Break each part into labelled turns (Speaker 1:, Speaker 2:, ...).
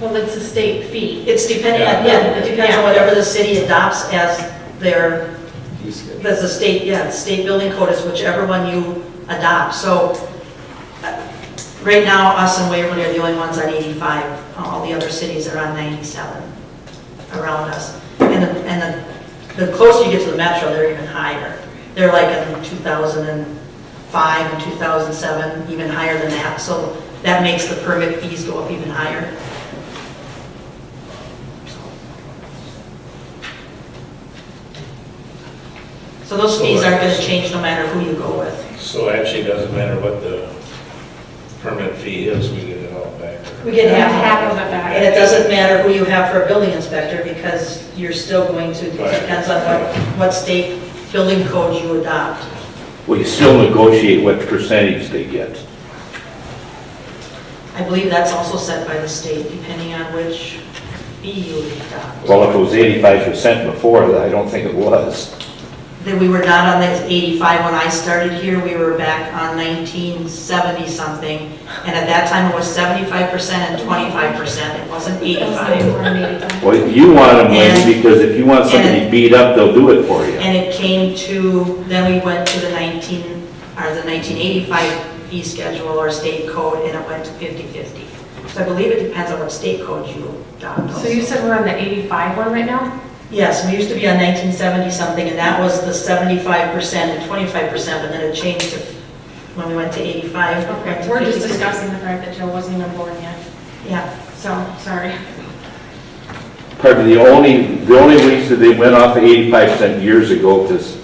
Speaker 1: Well, it's a state fee.
Speaker 2: It's depending on, yeah, it depends on whatever the city adopts as their, as the state, yeah, the state building code is whichever one you adopt. So uh, right now, us and Waverly are the only ones on 85. All the other cities are on 97 around us. And the, and the, the closer you get to the metro, they're even higher. They're like in 2005 and 2007, even higher than that. So that makes the permit fees go up even higher. So those fees aren't going to change no matter who you go with.
Speaker 3: So actually, it doesn't matter what the permit fee is, we get it all back.
Speaker 2: We get half of it.
Speaker 1: Half of it back.
Speaker 2: And it doesn't matter who you have for a building inspector, because you're still going to,
Speaker 3: Right.
Speaker 2: depends on what, what state building code you adopt.
Speaker 4: Well, you still negotiate what percentage they get.
Speaker 2: I believe that's also set by the state, depending on which fee you adopt.
Speaker 4: Well, if it was eighty-five percent before, I don't think it was.
Speaker 2: Then we were not on the 85 when I started here, we were back on 1970-something, and at that time it was 75% and 25%, it wasn't 85.
Speaker 1: Eighty-five.
Speaker 4: Well, you want them less because if you want somebody beat up, they'll do it for you.
Speaker 2: And it came to, then we went to the 19, or the 1985 fee schedule or state code, and it went to 50/50. So I believe it depends on what state code you adopt.
Speaker 1: So you said we're on the eighty-five one right now?
Speaker 2: Yes, we used to be on 1970-something, and that was the 75% and 25%, but then it changed to, when we went to 85. it went
Speaker 1: Okay,
Speaker 2: to
Speaker 1: we're just
Speaker 2: 50.
Speaker 1: discussing the fact that Joe wasn't even born yet,
Speaker 2: Yeah,
Speaker 1: so, sorry.
Speaker 4: Probably the only, the only reason they went off eighty-five percent years ago, because,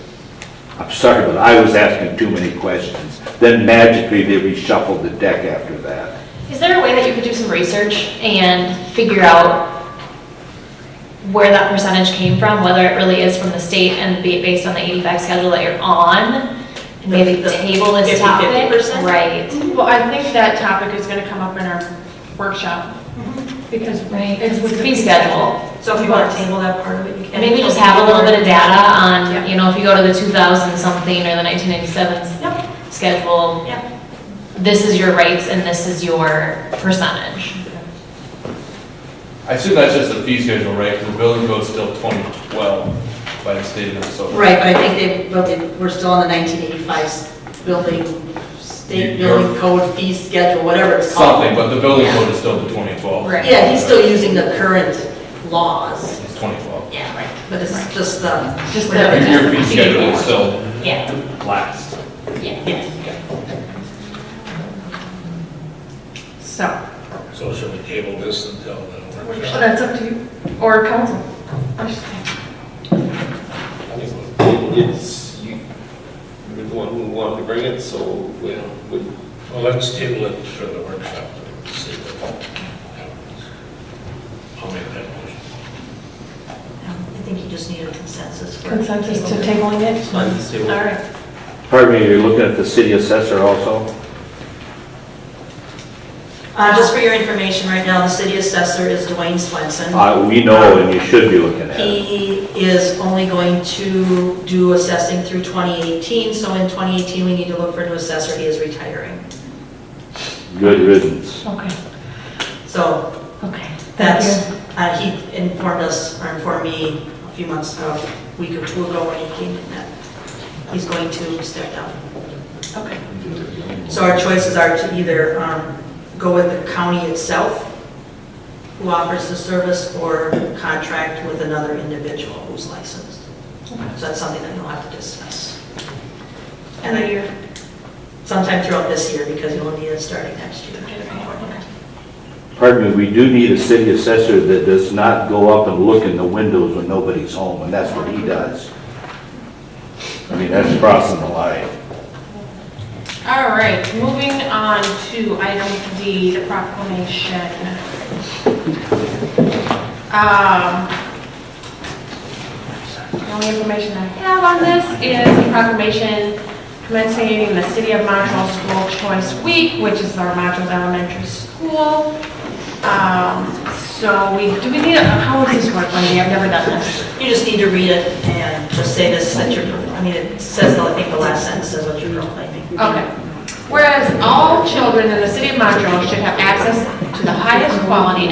Speaker 4: I'm sorry, but I was asking too many questions. Then magically, they reshuffled the deck after that.
Speaker 5: Is there a way that you could do some research and figure out where that percentage came from, whether it really is from the state and be based on the 85 schedule that you're on? and Maybe
Speaker 2: The- the
Speaker 5: table this topic?
Speaker 2: 50-50%?
Speaker 5: Right.
Speaker 1: Well, I think that topic is gonna come up in our workshop, because
Speaker 5: Right,
Speaker 1: Mm-hmm. it's with the
Speaker 5: fee schedule.
Speaker 2: so if you want to table that part of it, you can.
Speaker 5: And maybe just have a little bit of data
Speaker 1: Yeah.
Speaker 5: on, you know, if you go to the 2000 something or the 1997
Speaker 2: Yep,
Speaker 5: schedule,
Speaker 2: yep.
Speaker 5: this is your rates and this is your percentage.
Speaker 6: I assume that's just the fee schedule, right? Because the building code's still 2012 by the state of Minnesota.
Speaker 2: Right, but I think they, but they, we're still on the 1985 building, state
Speaker 6: You're-
Speaker 2: building code fee schedule, whatever it's called.
Speaker 6: Something, but the building code is still the 2012.
Speaker 5: Right.
Speaker 2: Yeah, he's still using the current laws.
Speaker 6: It's 2012.
Speaker 2: Yeah, right. But it's just um, the.
Speaker 5: Just the-
Speaker 6: Your- Your fee schedule is still
Speaker 5: Yeah,
Speaker 6: last.
Speaker 5: yeah.
Speaker 1: So,
Speaker 3: So should we table this until the
Speaker 1: well,
Speaker 3: workshop?
Speaker 1: Oh, that's up to you, or council. I should say.
Speaker 7: I think It's, you, you're the one who wanted to bring it, so we, we,
Speaker 3: Well, let's table it for the workshop and see what happens. I'll make that motion.
Speaker 2: I think you just need a consensus for.
Speaker 1: Consensus to tabling it?
Speaker 7: on the table.
Speaker 1: All right,
Speaker 4: Pardon me, you're looking at the city assessor also?
Speaker 2: Uh, just for your information, right now, the city assessor is Dwayne Swenson.
Speaker 4: Uh, we know, and you should be looking at it.
Speaker 2: He is only going to do assessing through 2018, so in 2018, we need to look for a new assessor, he is retiring.
Speaker 4: Good riddance.
Speaker 5: Okay,
Speaker 2: So
Speaker 5: okay.
Speaker 2: That's, uh, he informed us, or informed me a few months, a week or two ago when he came in that he's going to step down.
Speaker 1: okay.
Speaker 2: So our choices are to either um, go with the county itself, who offers the service, or contract with another individual who's licensed. So that's something that you'll have to discuss. And I- sometime throughout this year, because you'll need it starting next year.
Speaker 4: Pardon me, we do need a city assessor that does not go up and look in the windows when nobody's home, and that's what he does. I mean, that's crossing the line.
Speaker 1: All right, moving on to item D, the proclamation. Um, The only information I have on this is the proclamation commencing the City of Montrose School Choice Week, which is our Montrose Elementary School. Um, So we, do we need, a how is this work, Wendy? I've never done this.
Speaker 2: You just need to read it and just say this, that you're, I mean, it says, I think the last sentence says what you're proclaiming.
Speaker 1: Okay. Whereas all children in the City of Montrose should have access to the highest quality